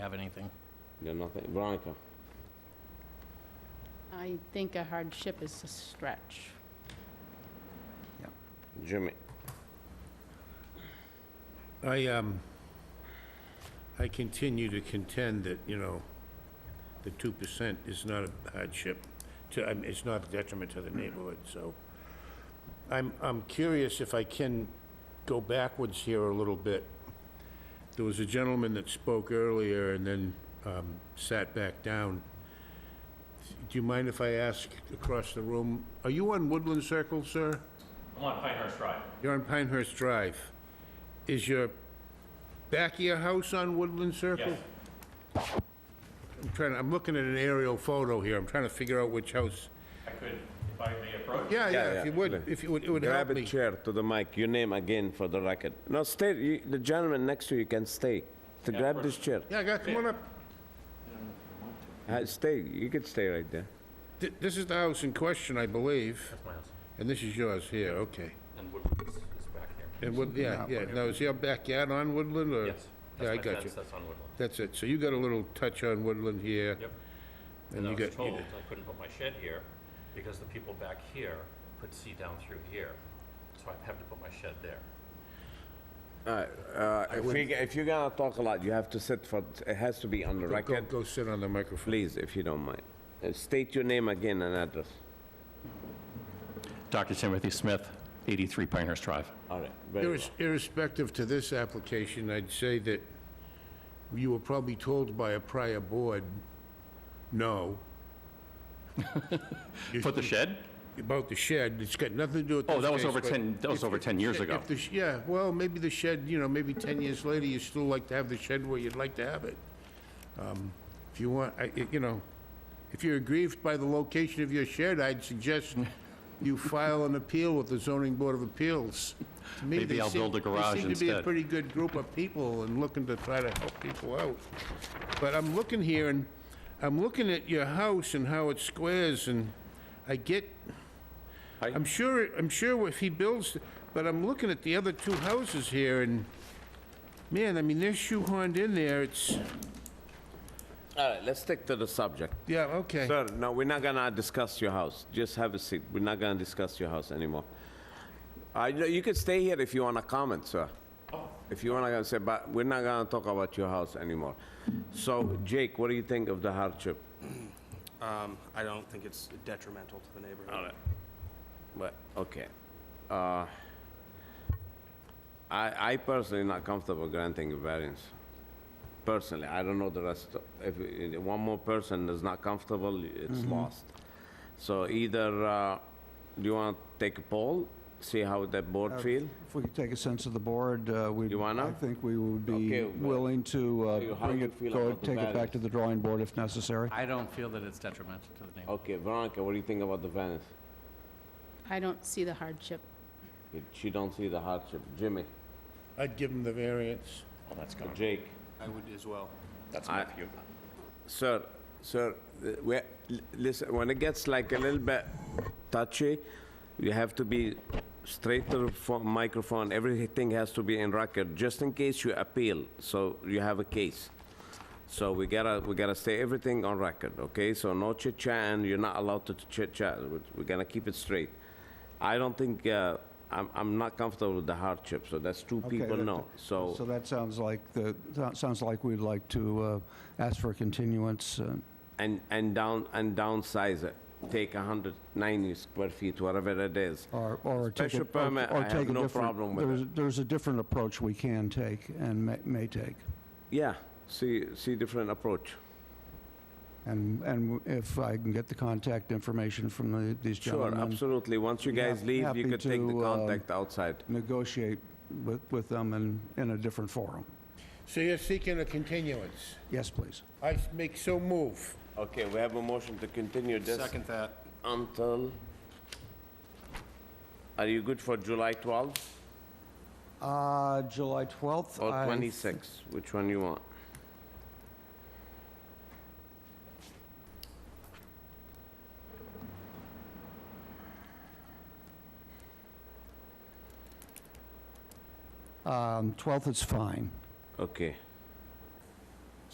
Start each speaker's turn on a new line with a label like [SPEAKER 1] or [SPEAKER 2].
[SPEAKER 1] anything.
[SPEAKER 2] You got nothing? Veronica?
[SPEAKER 3] I think a hardship is a stretch.
[SPEAKER 2] Jimmy?
[SPEAKER 4] I, um, I continue to contend that, you know, the 2% is not a hardship to, I mean, it's not a detriment to the neighborhood, so. I'm, I'm curious if I can go backwards here a little bit. There was a gentleman that spoke earlier and then, um, sat back down. Do you mind if I ask across the room, are you on Woodland Circle, sir?
[SPEAKER 5] I'm on Pinehurst Drive.
[SPEAKER 4] You're on Pinehurst Drive. Is your back of your house on Woodland Circle?
[SPEAKER 5] Yes.
[SPEAKER 4] I'm trying, I'm looking at an aerial photo here, I'm trying to figure out which house.
[SPEAKER 5] I could, if I may approach?
[SPEAKER 4] Yeah, yeah,
[SPEAKER 2] yeah,
[SPEAKER 4] if you would,
[SPEAKER 2] look.
[SPEAKER 4] if you would, it would help
[SPEAKER 2] Grab a
[SPEAKER 4] me.
[SPEAKER 2] chair to the mic, your name again for the record. No, stay, you- the gentleman next to you can stay. To grab this chair.
[SPEAKER 4] Yeah, guy, come on up.
[SPEAKER 2] Uh, Stay, you could stay right there.
[SPEAKER 4] Th- This is the house in question, I believe,
[SPEAKER 5] My house.
[SPEAKER 4] and this is yours here, okay.
[SPEAKER 5] And Woodward is is back here.
[SPEAKER 4] And Wood, yeah, yeah, now is your backyard on Woodland, or?
[SPEAKER 5] Yes. that's
[SPEAKER 4] Yeah, I
[SPEAKER 5] my
[SPEAKER 4] got
[SPEAKER 5] fence,
[SPEAKER 4] you.
[SPEAKER 5] That's on Woodland.
[SPEAKER 4] That's it, so you got a little touch on Woodland here.
[SPEAKER 5] Yep.
[SPEAKER 4] And
[SPEAKER 5] And I
[SPEAKER 4] you got,
[SPEAKER 5] was told
[SPEAKER 4] you-
[SPEAKER 5] I couldn't put my shed here because the people back here could see down through here. So I have to put my shed there.
[SPEAKER 2] Uh, If you, if you're gonna talk a lot, you have to sit for, it has to be on the
[SPEAKER 4] go,
[SPEAKER 2] record.
[SPEAKER 4] go sit on the microphone.
[SPEAKER 2] Please, if you don't mind. Uh, State your name again and address.
[SPEAKER 5] Dr. Timothy Smith, 83 Pinehurst Drive.
[SPEAKER 2] All right, very well.
[SPEAKER 4] Irres- Irrespective to this application, I'd say that you were probably told by a prior board, no. You-
[SPEAKER 5] Put the shed?
[SPEAKER 4] About the shed, it's got nothing to do with this
[SPEAKER 5] Oh, that was
[SPEAKER 4] case,
[SPEAKER 5] over
[SPEAKER 4] but
[SPEAKER 5] 10, that was
[SPEAKER 4] if-
[SPEAKER 5] over 10 years ago.
[SPEAKER 4] if the sh- Yeah, well, maybe the shed, you know, maybe 10 years later, you still like to have the shed where you'd like to have it. Um, If you want, I- you know, if you're aggrieved by the location of your shed, I'd suggest you file an appeal with the zoning board of appeals. To me,
[SPEAKER 5] Maybe
[SPEAKER 4] they
[SPEAKER 5] I'll
[SPEAKER 4] seem-
[SPEAKER 5] build a garage
[SPEAKER 4] They seem to be a
[SPEAKER 5] instead.
[SPEAKER 4] pretty good group of people and looking to try to help people out. But I'm looking here and I'm looking at your house and how it squares and I get, I'm sure, I'm sure if he builds, but I'm looking at the other two houses here and, man, I mean, they're shoehorned in there, it's,
[SPEAKER 2] All right, let's stick to the subject.
[SPEAKER 4] yeah, okay.
[SPEAKER 2] Sir, no, we're not gonna discuss your house. Just have a seat. We're not gonna discuss your house anymore. I, know- you can stay here if you wanna comment, sir. If you wanna say, but we're not gonna talk about your house anymore. So Jake, what do you think of the hardship?
[SPEAKER 6] Um, I don't think it's detrimental to the neighborhood.
[SPEAKER 2] But, okay. Uh, I, I personally not comfortable granting a variance. Personally, I don't know the rest. of- If i- one more person is not comfortable, it's lost. So either, uh, do you want to take a poll, see how the board feel?
[SPEAKER 7] If we could take a sense of the board, uh, we,
[SPEAKER 2] You wanna?
[SPEAKER 7] I think we would
[SPEAKER 2] Okay,
[SPEAKER 7] be
[SPEAKER 2] but-
[SPEAKER 7] willing to
[SPEAKER 2] So you-
[SPEAKER 7] uh,
[SPEAKER 2] how
[SPEAKER 7] bring
[SPEAKER 2] you
[SPEAKER 7] it,
[SPEAKER 2] feel
[SPEAKER 7] go,
[SPEAKER 2] about the
[SPEAKER 7] take it
[SPEAKER 2] values?
[SPEAKER 7] back to the drawing board if necessary.
[SPEAKER 8] I don't feel that it's detrimental to the neighborhood.
[SPEAKER 2] Okay, Veronica, what do you think about the variance?
[SPEAKER 3] I don't see the hardship.
[SPEAKER 2] You- She don't see the hardship. Jimmy,
[SPEAKER 4] I'd give him the variance.
[SPEAKER 2] Jake?
[SPEAKER 6] I would as well.
[SPEAKER 2] I- Sir, sir, uh, we, l- listen, when it gets like a little bit touchy, you have to be straight to the pho- microphone, everything has to be in record, just in case you appeal, so you have a case. So we gotta, we gotta stay everything on record, okay? So no chit-chat, and you're not allowed to chit-chat, We're- we're gonna keep it straight. I don't think, uh, I'm, I'm not comfortable with the hardship, so that's two
[SPEAKER 7] Okay,
[SPEAKER 2] people
[SPEAKER 7] that-
[SPEAKER 2] no, so.
[SPEAKER 7] So that sounds like, the that sounds like we'd like to uh, ask for a continuance. uh,
[SPEAKER 2] and, and down, and downsize it. Take 190 square feet, whatever it is.
[SPEAKER 7] Or, or take a...
[SPEAKER 2] Special
[SPEAKER 7] or-
[SPEAKER 2] permit,
[SPEAKER 7] or
[SPEAKER 2] I have
[SPEAKER 7] take a
[SPEAKER 2] no
[SPEAKER 7] different-
[SPEAKER 2] problem with
[SPEAKER 7] there's-
[SPEAKER 2] it.
[SPEAKER 7] There's a different approach we can take and may- may take.
[SPEAKER 2] Yeah, see, see different approach.
[SPEAKER 7] And, and if I can get the contact information from the- these
[SPEAKER 2] Sure,
[SPEAKER 7] gentlemen...
[SPEAKER 2] absolutely. Once you guys
[SPEAKER 7] hap-
[SPEAKER 2] leave, you
[SPEAKER 7] happy
[SPEAKER 2] could take the
[SPEAKER 7] to, um,
[SPEAKER 2] contact outside.
[SPEAKER 7] Negotiate with, with them in, in a different forum.
[SPEAKER 4] So you're seeking a continuance.
[SPEAKER 7] Yes, please.
[SPEAKER 4] I s- make so move.
[SPEAKER 2] Okay, we have a motion to continue this
[SPEAKER 6] Second that.
[SPEAKER 2] until... Are you good for July 12th
[SPEAKER 7] Uh, July 12th.
[SPEAKER 2] or
[SPEAKER 7] I-
[SPEAKER 2] 26th? Which one you want?
[SPEAKER 7] Um, 12th is fine. um,
[SPEAKER 2] Okay,